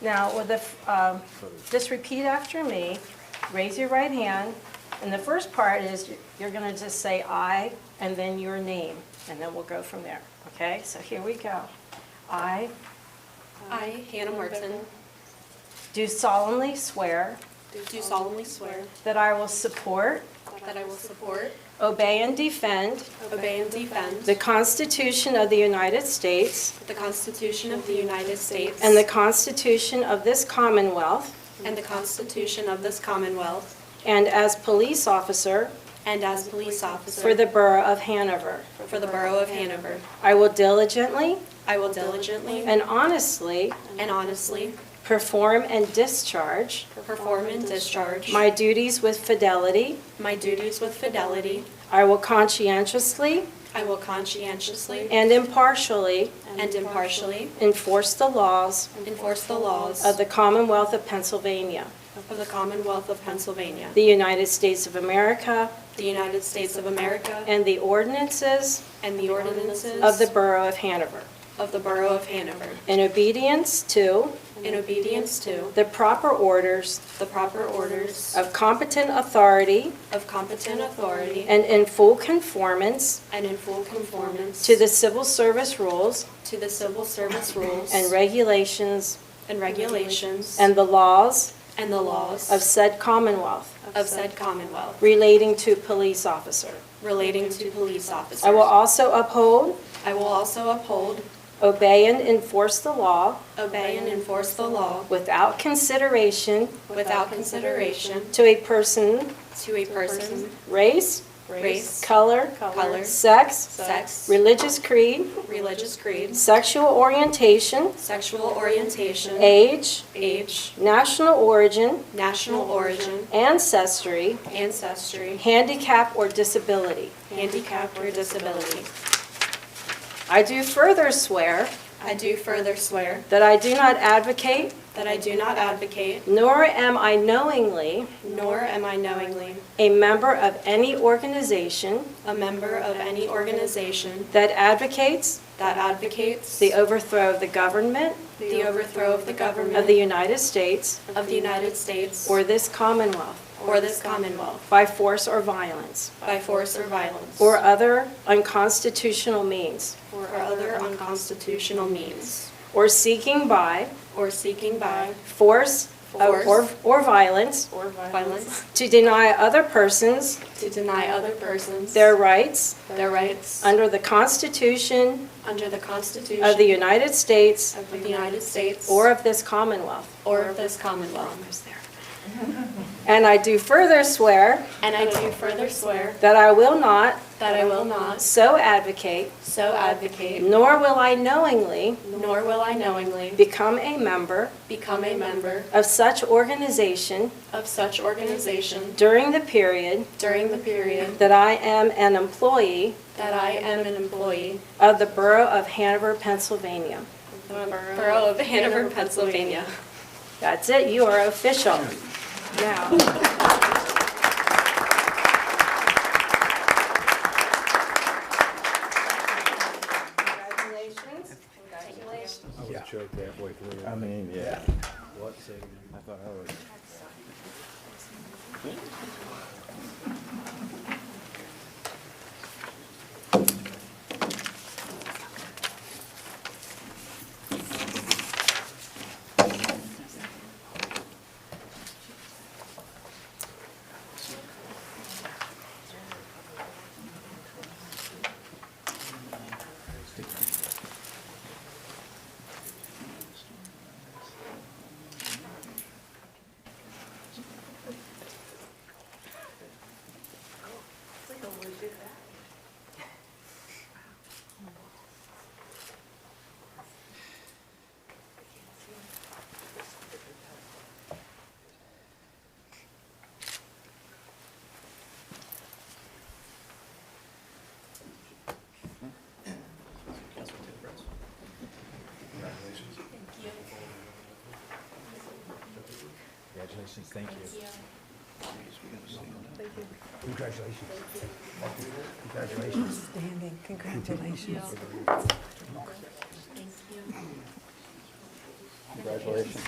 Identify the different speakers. Speaker 1: Now, with the, f- um, just repeat after me, raise your right hand, and the first part is, you're going to just say "I," and then your name, and then we'll go from there, okay? So here we go. I
Speaker 2: I, Hannah Martin,
Speaker 1: do solemnly swear
Speaker 2: do solemnly swear
Speaker 1: that I will support,
Speaker 2: that I will support,
Speaker 1: obey, and defend
Speaker 2: obey, and defend
Speaker 1: the Constitution of the United States
Speaker 2: the Constitution of the United States
Speaker 1: and the Constitution of this Commonwealth,
Speaker 2: and the Constitution of this Commonwealth,
Speaker 1: and as police officer
Speaker 2: and as police
Speaker 1: for
Speaker 2: officer
Speaker 1: the Borough of Hanover,
Speaker 2: for the Borough of Hanover,
Speaker 1: I will diligently
Speaker 2: I will diligently
Speaker 1: and honestly
Speaker 2: and honestly
Speaker 1: perform and discharge
Speaker 2: perform and discharge
Speaker 1: my duties with fidelity.
Speaker 2: my duties with fidelity.
Speaker 1: I will conscientiously
Speaker 2: I will conscientiously
Speaker 1: and impartially
Speaker 2: and impartially
Speaker 1: enforce the laws
Speaker 2: enforce the laws
Speaker 1: of
Speaker 2: of
Speaker 1: the Commonwealth of Pennsylvania,
Speaker 2: the Commonwealth of Pennsylvania,
Speaker 1: the United States of America,
Speaker 2: the United States of America,
Speaker 1: and the ordinances
Speaker 2: and the ordinances
Speaker 1: of the Borough of Hanover,
Speaker 2: of the Borough of Hanover,
Speaker 1: in obedience to
Speaker 2: in obedience to
Speaker 1: the proper orders
Speaker 2: the proper orders
Speaker 1: of competent authority
Speaker 2: of competent authority
Speaker 1: and in full conformance
Speaker 2: and in full conformance
Speaker 1: to the civil service rules
Speaker 2: to the civil service rules
Speaker 1: and regulations
Speaker 2: and regulations
Speaker 1: and the laws
Speaker 2: and the laws
Speaker 1: of said Commonwealth
Speaker 2: of said Commonwealth
Speaker 1: relating to police officer.
Speaker 2: relating to police officers.
Speaker 1: I will also uphold,
Speaker 2: I will also uphold,
Speaker 1: obey, and enforce the law
Speaker 2: obey, and enforce the law
Speaker 1: without consideration
Speaker 2: without consideration
Speaker 1: to a person,
Speaker 2: to a person,
Speaker 1: race,
Speaker 2: race,
Speaker 1: color,
Speaker 2: Color.
Speaker 1: sex,
Speaker 2: sex,
Speaker 1: religious creed,
Speaker 2: religious creed,
Speaker 1: sexual orientation,
Speaker 2: sexual orientation,
Speaker 1: age,
Speaker 2: age,
Speaker 1: national origin,
Speaker 2: national origin,
Speaker 1: ancestry,
Speaker 2: ancestry,
Speaker 1: handicap, or disability.
Speaker 2: handicap, or disability.
Speaker 1: I do further swear
Speaker 2: I do further swear
Speaker 1: that I do not advocate,
Speaker 2: that I do not advocate,
Speaker 1: nor am I knowingly
Speaker 2: nor am I knowingly,
Speaker 1: a member of any organization
Speaker 2: a member of any organization
Speaker 1: that advocates
Speaker 2: that advocates
Speaker 1: the overthrow of the government
Speaker 2: the overthrow of the
Speaker 1: of the
Speaker 2: government
Speaker 1: United States
Speaker 2: of the United States
Speaker 1: or this Commonwealth
Speaker 2: or this Commonwealth
Speaker 1: by force or violence
Speaker 2: by force or violence
Speaker 1: or other unconstitutional means,
Speaker 2: or other unconstitutional means,
Speaker 1: or seeking by
Speaker 2: or seeking by
Speaker 1: force of- or
Speaker 2: Force.
Speaker 1: or violence
Speaker 2: violence
Speaker 1: to deny other persons
Speaker 2: to deny other persons
Speaker 1: their rights
Speaker 2: their rights
Speaker 1: under the Constitution
Speaker 2: under the Constitution
Speaker 1: of the United States
Speaker 2: of the United States
Speaker 1: or of this Commonwealth.
Speaker 2: or of this Commonwealth.
Speaker 1: And I do further swear
Speaker 2: And I do further swear
Speaker 1: that I will not
Speaker 2: that I will not
Speaker 1: so advocate,
Speaker 2: so advocate
Speaker 1: nor will I knowingly
Speaker 2: Nor will I knowingly
Speaker 1: become a member
Speaker 2: become a member
Speaker 1: of such organization
Speaker 2: of such organization
Speaker 1: during the period
Speaker 2: during the period
Speaker 1: that I am an employee
Speaker 2: that I am an employee
Speaker 1: of the Borough of Hanover, Pennsylvania.
Speaker 2: of the Borough of Hanover, Pennsylvania.
Speaker 1: That's it, you are official. Now, Congratulations. Congratulations.
Speaker 3: I mean, yeah. I thought I was. Congratulations, thank you. Congratulations. Congratulations.
Speaker 4: Outstanding, congratulations.
Speaker 3: Congratulations.